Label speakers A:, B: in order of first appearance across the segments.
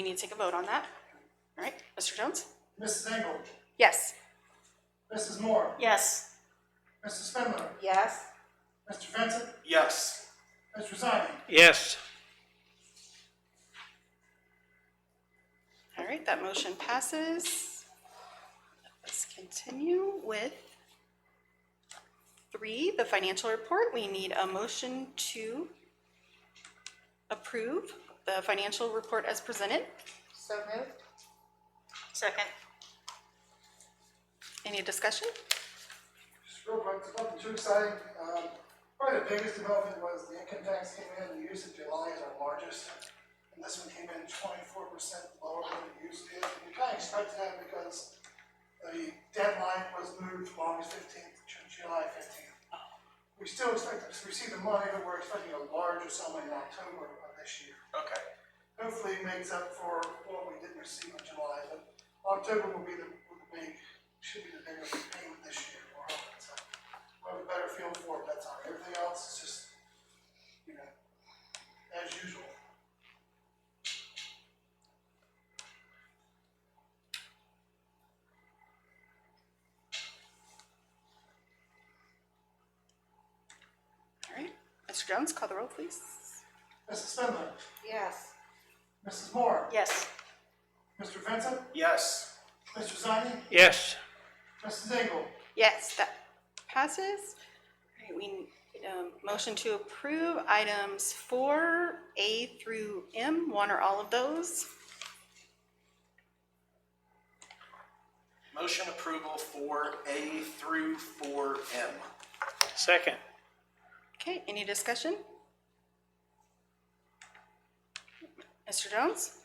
A: We need to take a vote on that. All right, Mr. Jones?
B: Mrs. Engel,
A: Yes.
B: Mrs. Moore,
A: Yes.
B: Mr. Spindler,
A: Yes.
B: Mr. Vincent,
C: Yes.
B: Mr. Zani.
C: Yes.
A: All right, that motion passes. Let's continue with three, the financial report. We need a motion to approve the financial report as presented.
D: So moved?
A: Second. Any discussion?
B: Just real quick, it's nothing too exciting. Um, Probably the biggest development was the income tax came in, the use of July is our largest. And this one came in twenty-four percent lower than it used to. And you kind of expected that because the deadline was moved from August fifteenth to July fifteenth. We still expect to receive the money, but we're expecting a larger sum in October of this year.
C: Okay.
B: hopefully it makes up for what we didn't receive in July, but October will be the, will be, should be the biggest payment this year, we're hoping, so. We'll have a better feel for it, that's all, everything else is just, you know, as usual.
A: All right, Mr. Jones, call the roll, please.
B: Mrs. Spindler,
D: Yes.
B: Mrs. Moore,
A: Yes.
B: Mr. Vincent,
C: Yes.
B: Mr. Zani,
C: Yes.
B: Mrs. Engel,
A: Yes, that passes. All right, we, need, um, motion to approve items four, A through M, one or all of those.
C: Motion approval for A through four M.
E: Second,
A: Okay, any discussion? Mr. Jones?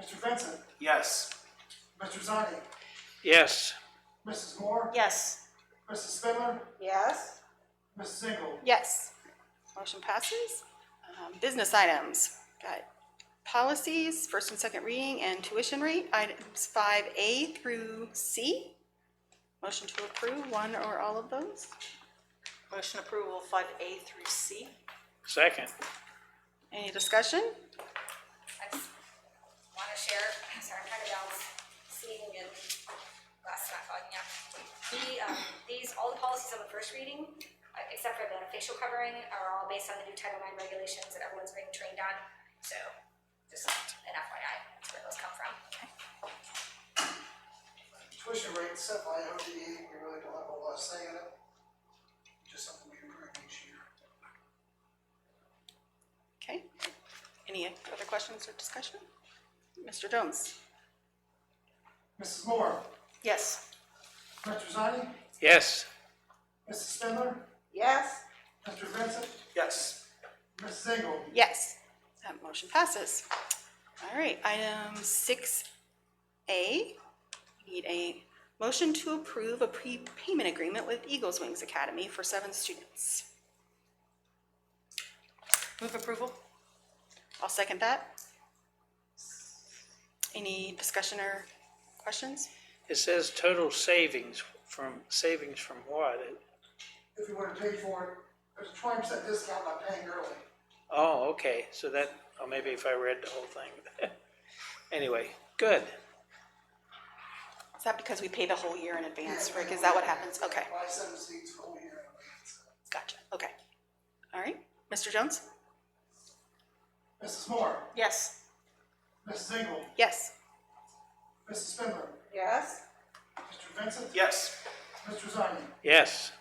B: Mr. Vincent,
C: Yes.
B: Mr. Zani,
E: yes.
B: Mrs. Moore,
A: Yes.
B: Mrs. Spindler,
D: Yes?
B: Mrs. Engel,
A: Yes. Motion passes. Um, business items, got policies, first and second reading, and tuition rate, items five A through C. Motion to approve one or all of those.
F: Motion approval five A through C.
E: Second,
A: Any discussion?
G: I just wanna share, sorry, I'm kind of down seeing and last not fogging up. The, um, these, all the policies on the first reading, uh, except for the facial covering, are all based on the new Title IX regulations that everyone's being trained on. So, just an FYI, that's where those come from.
B: tuition rates set by ODE, we really don't have a lot of say in it. Just something we improve each year.
A: Okay. Any other questions or discussion? Mr. Jones?
B: Mrs. Moore,
F: Yes.
B: Mr. Zani,
E: yes.
B: Mrs. Spindler,
D: Yes?
B: Mr. Vincent,
C: Yes.
B: Mrs. Engel,
A: Yes. That motion passes. All right, item six A, need a motion to approve a prepayment agreement with Eagles Wings Academy for seven students.
F: Move approval?
A: I'll second that. Any discussion or questions?
E: It says total savings from, savings from what? It-
B: if you want to pay for it, there's a twenty percent discount by paying early.
E: Oh, okay, so that, oh, maybe if I read the whole thing. Anyway, good.
A: Is that because we pay the whole year in advance, Rick? Is that what happens? Okay,
B: Buy seven seats for uh, a whole year. in advance.
A: gotcha, okay. All right, Mr. Jones?
B: Mrs. Moore,
F: Yes.
B: Mrs. Engel,
A: Yes.
B: Mrs. Spindler,
D: Yes?
B: Mr. Vincent,
C: Yes.
B: Mr. Zani,
E: Yes,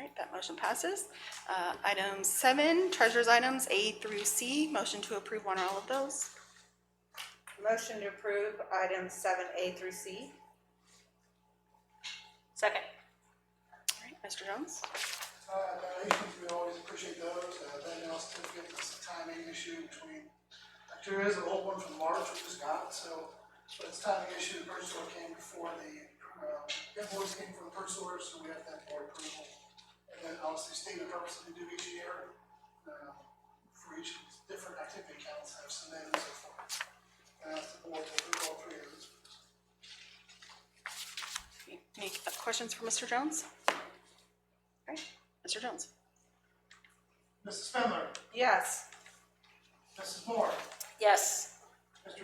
A: All right, that motion passes. Uh, Item seven, treasurer's items A through C, motion to approve one or all of those.
D: Motion to approve items seven A through C?
F: Second.
A: All right, Mr. Jones?
B: uh, donations, we always appreciate those, uh, then else to get this timing issue between, like, there is an old one from March we just got, so, but it's timing issue, the purchase order came before the, um, invoice came for the purchase order, so we have that board approval. And then obviously state of purpose that we do each year, um, for each different activity accounts have submitted and so forth. And that's the board, to approve all three of those.
A: Any questions for Mr. Jones? All right, Mr. Jones?
B: Mrs. Spindler,
D: Yes?
B: Mrs. Moore,
F: Yes.